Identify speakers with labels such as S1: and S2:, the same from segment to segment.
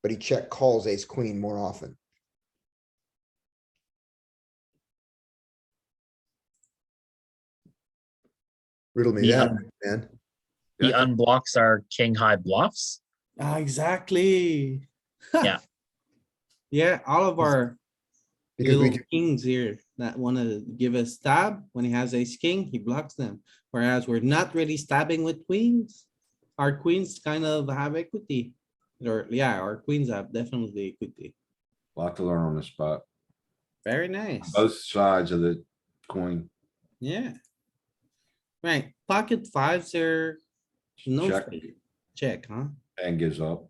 S1: but he check calls ace queen more often. Riddle me
S2: Yeah.
S1: that, man.
S2: He
S3: Yeah.
S2: unblocks our king high bluffs.
S4: Ah, exactly.
S2: Yeah.
S4: Yeah, all of our
S1: Because we,
S4: little kings here that wanna give a stab, when he has ace king, he blocks them. Whereas we're not really stabbing with queens. Our queens kind of have equity. Or, yeah, our queens have definitely equity.
S3: Lot to learn on the spot.
S4: Very nice.
S3: Both sides of the coin.
S4: Yeah. Right, pocket fives are no
S3: Check
S4: straight. check, huh?
S3: and gives up.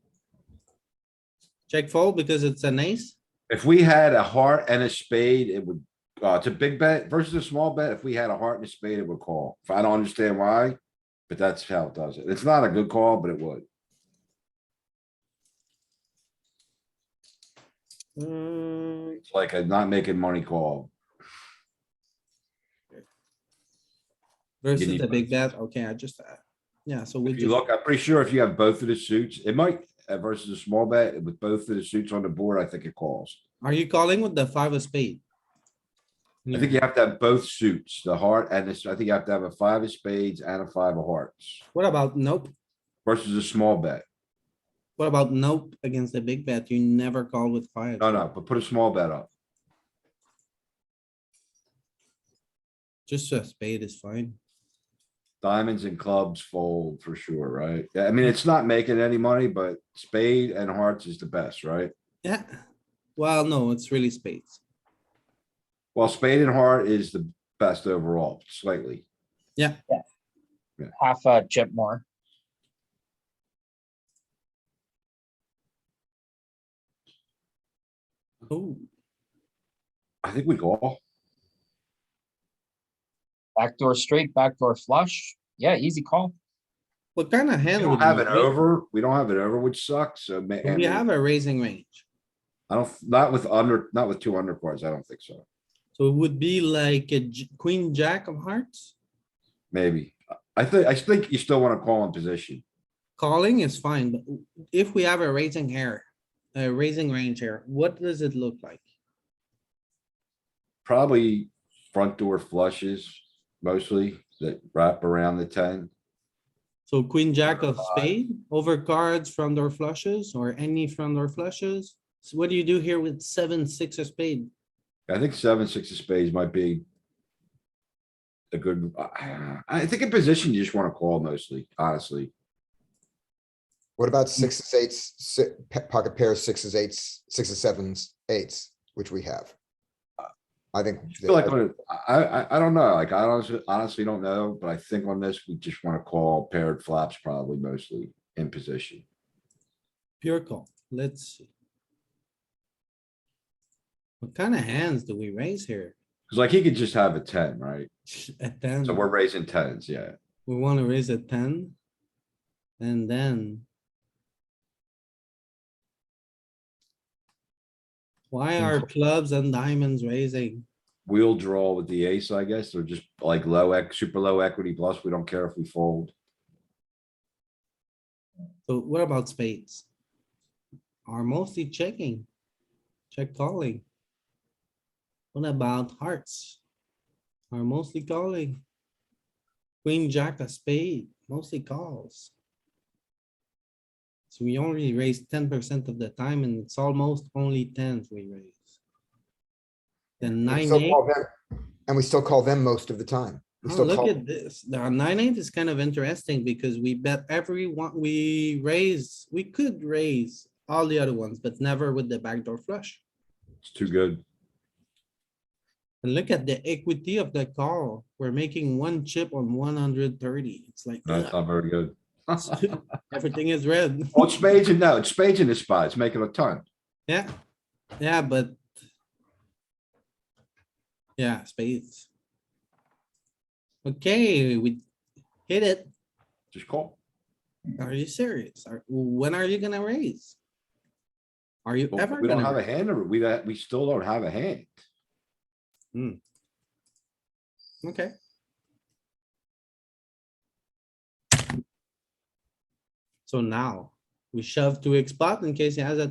S4: Check fold because it's an ace.
S3: If we had a heart and a spade, it would, uh, it's a big bet versus a small bet. If we had a heart and a spade, it would call. If I don't understand why, but that's how it does it. It's not a good call, but it would.
S4: Mm,
S3: It's like a not making money call.
S4: Versus
S3: need
S4: the big
S3: both.
S4: bet, okay, I just, uh, yeah, so we
S3: If you
S4: just,
S3: look, I'm pretty sure if you have both of the suits, it might, uh, versus a small bet, with both of the suits on the board, I think it calls.
S4: are you calling with the five of spade?
S3: I think you have to have both suits, the heart and this, I think you have to have a five of spades and a five of hearts
S4: What about nope?
S3: versus a small bet.
S4: What about nope against the big bet? You never call with five.
S3: No, no, but put a small bet up.
S4: Just a spade is fine.
S3: Diamonds and clubs fold for sure, right? Yeah, I mean, it's not making any money, but spade and hearts is the best, right?
S4: Yeah, well, no, it's really spades.
S3: Well, spade and heart is the best overall slightly.
S2: Half a chip more.
S4: Oh,
S3: I think we call.
S2: Backdoor straight, backdoor flush. Yeah, easy call.
S4: what kind of
S3: We
S4: hand?
S3: don't
S4: would
S3: have
S4: we
S3: it
S4: make?
S3: over. We don't have it over, which sucks. So ma-
S4: Do
S3: I
S4: We
S3: mean,
S4: have a raising range,
S3: I don't, not with under, not with two under cards. I don't think so.
S4: so it would be like a j- queen, jack of hearts.
S3: Maybe. I think, I think you still want to call in position.
S4: Calling is fine, but if we have a raising hair, a raising range here, what does it look like?
S3: Probably front door flushes mostly that wrap around the ten.
S4: So queen, jack of
S3: Five.
S4: spade, over cards, front door flushes, or any front door flushes? So what do you do here with seven, six of spade?
S3: I think seven, six of spades might be. A good, I I think in position, you just wanna call mostly, honestly.
S1: what about sixes, eights, si- pa- pocket pairs, sixes, eights, sixes, sevens, eights, which we have? I think.
S3: I feel like, on a- I, I, I don't know, like, I honestly, honestly don't know, but I think on this, we just wanna call paired flaps probably mostly in position.
S4: Pure call, let's see. What kind of hands do we raise here?
S3: Cause like, he could just have a ten, right?
S4: A ten,
S3: So we're raising tens, yeah.
S4: we wanna raise a ten. And then. Why are clubs and diamonds raising?
S3: We'll draw with the ace, I guess, or just like low ex, super low equity plus, we don't care if we fold.
S4: So what about spades? Are mostly checking, check calling. What about hearts? Are mostly calling. Queen, jack, a spade, mostly calls. So we only raise ten percent of the time and it's almost only tens we raise. The nine
S1: still
S4: eight,
S1: call them- And we still call them most of the time. We
S4: oh,
S1: still
S4: look
S1: call-
S4: at this, the nine eight is kind of interesting because we bet every one, we raise, we could raise all the other ones, but never with the backdoor flush.
S3: It's too good.
S4: And look at the equity of the call. We're making one chip on one hundred thirty. It's like,
S3: No, it's
S4: ugh,
S3: not very good.
S4: everything is red.
S3: Well, it's spades and no, it's spades in this spot. It's making a ton.
S4: Yeah, yeah, but. Yeah, spades. Okay, we hit it.
S3: Just call.
S4: Are you serious? Are, when are you gonna raise? Are you
S3: Well,
S4: ever
S3: We don't have
S4: gonna?
S3: a hand or we, don't- we still don't have a hand.
S4: Okay. So now, we shove to X spot in case he has a